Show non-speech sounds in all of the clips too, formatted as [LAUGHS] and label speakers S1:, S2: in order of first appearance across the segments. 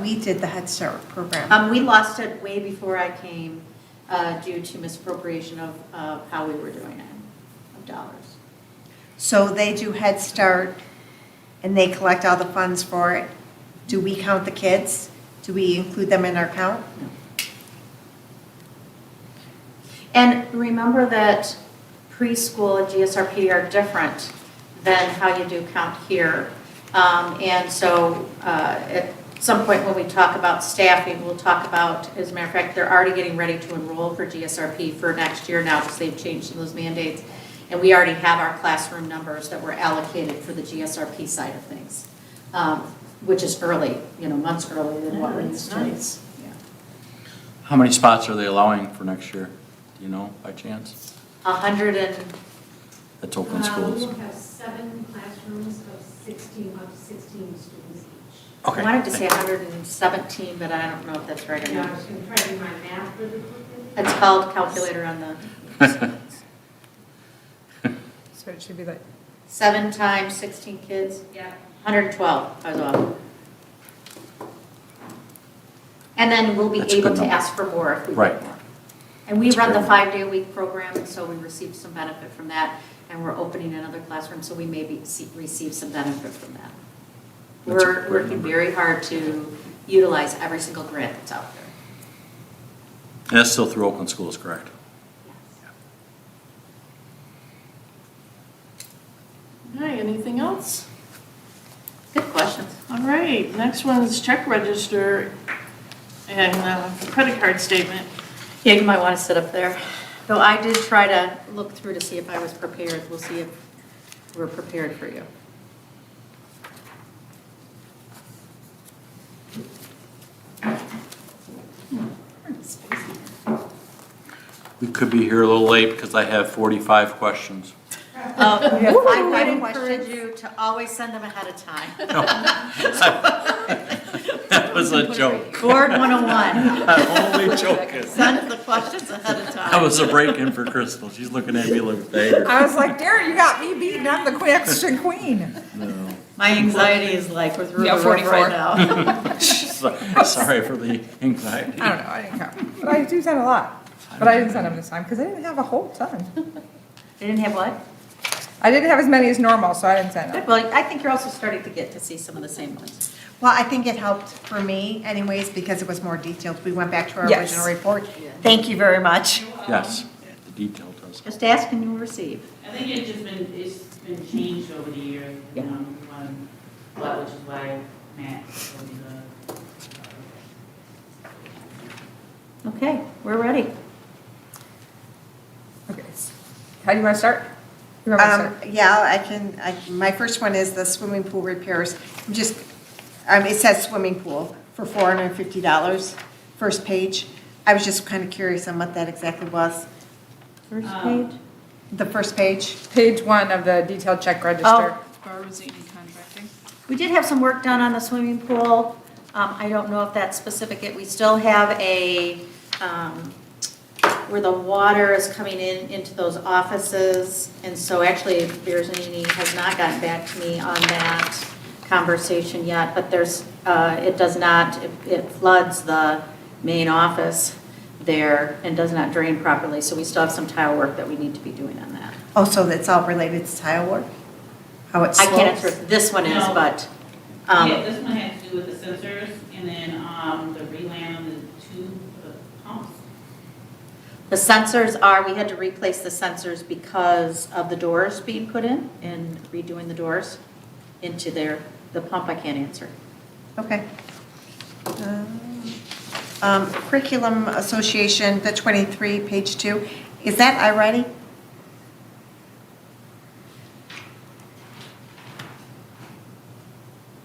S1: we did the Head Start program.
S2: Um, we lost it way before I came, uh, due to misappropriation of, of how we were doing it, of dollars.
S1: So they do Head Start and they collect all the funds for it. Do we count the kids? Do we include them in our count?
S2: And remember that preschool and GSRP are different than how you do count here. Um, And so uh, at some point when we talk about staffing, we'll talk about, as a matter of fact, they're already getting ready to enroll for GSRP for next year now because they've changed some of those mandates. And we already have our classroom numbers that were allocated for the GSRP side of things, um, which is early, you know, months earlier than what we used to. Yeah.
S3: How many spots are they allowing for next year? Do you know by chance?
S2: A hundred and
S3: That's Oakland
S4: Uh, We
S3: Schools.
S4: will have seven classrooms of 16, up to 16 students each.
S2: I wanted to say 117, but I don't know if that's right or
S4: And I
S2: not.
S4: was going to try to do my math really quickly.
S2: It's called calculator on the,
S3: [LAUGHS]
S5: So it should be like,
S2: seven times 16 kids,
S4: Yeah.
S2: 112, I was off. And then we'll be
S3: That's a good
S2: able to
S3: number.
S2: ask for more if we
S3: Right.
S2: want more. And we
S3: That's
S2: run the
S3: great.
S2: five-day-a-week program, and so we receive some benefit from that, and we're opening another classroom, so we may be, see- receive some benefit from that.
S3: That's a
S2: We're
S3: great
S2: working
S3: number.
S2: very hard to utilize every single grant that's out there.
S3: And [LAUGHS] that's still through Oakland Schools, correct?
S6: All right, anything else?
S2: Good questions.
S6: All right, next one is check register and uh, credit card statement.
S2: Yeah, you might want to sit up there. Though I did try to look through to see if I was prepared. We'll see if we're prepared for you.
S3: We could be here a little late because I have 45 questions. [LAUGHS]
S2: [LAUGHS] I
S1: have five
S2: would
S1: written
S2: Uh, encourage
S1: questions.
S2: you to always send them ahead of time.
S3: That was a joke.
S2: Board 101,
S3: I'm only joking.
S2: send the questions ahead of time.
S3: That was a break-in for Crystal. She's looking at me like, there.
S5: I was like, Darren, you got me beaten, I'm the question queen.
S3: No.
S2: My anxiety is like with
S5: Yeah,
S2: River Road
S5: 44.
S2: right now.
S3: So- [LAUGHS] Sorry for the anxiety.
S5: I don't know, I didn't count, but I do send a lot. But I didn't send them this time, because I didn't have a whole ton.
S2: They didn't have what?
S5: I didn't have as many as normal, so I didn't send them.
S2: Good, well, I think you're also starting to get to see some of the same ones.
S1: Well, I think it helped for me anyways because it was more detailed. We went back to our
S5: Yes.
S1: original report.
S2: Yeah.
S1: Thank you very much.
S3: Yes, the detail does.
S2: Just ask and you'll receive.
S7: I think it's just been, it's been changed over the years,
S2: Yeah.
S7: um, um, but which is why Matt told me the.
S2: Okay, we're ready.
S5: Okay. How do you want to start? You want me to
S1: Um,
S5: start?
S1: yeah, I can, I, my first one is the swimming pool repairs. I'm Just, um, it says swimming pool for four hundred and fifty dollars, first page. I was just kind of curious on what that exactly was,
S2: First
S7: Um,
S2: page.
S1: the first page.
S5: Page one of the detailed check register.
S6: contracting.
S2: We did have some work done on the swimming pool. Um, I don't know if that's specific, It- we still have a, um, where the water is coming in into those offices. And so actually, Beersini has not gotten back to me on that conversation yet, but there's, uh, it does not, it- it floods the main office there and does not drain properly, so we still have some tile work that we need to be doing on that.
S1: Oh, so that's all related to tile work? How it
S2: I can't
S1: slopes?
S2: answer if this one is,
S7: No.
S2: but. um,
S7: uh, Yeah, this one had to do with the sensors and then, um, the relam and the two uh, pumps.
S2: The sensors are, we had to replace the sensors because of the doors being put in and redoing the doors into their, the pump I can't answer.
S1: Okay. Uh, Um, Curriculum Association, the 23, page 2, is that iReady?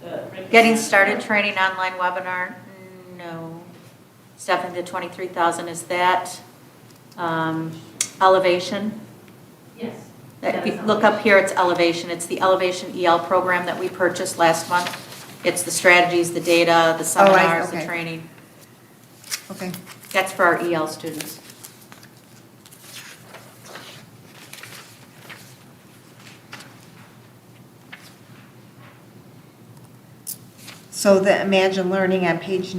S7: the-
S2: Getting started training online webinar, no. Stephanie, the 23,000, is that um, elevation?
S4: Yes.
S2: That- If you look up here, it's elevation, it's the elevation EL program that we purchased last month. It's the strategies, the data, the
S1: Oh, I-
S2: seminars, the
S1: okay.
S2: training.
S1: Okay.
S2: That's for our EL students.
S1: So the Imagine Learning on page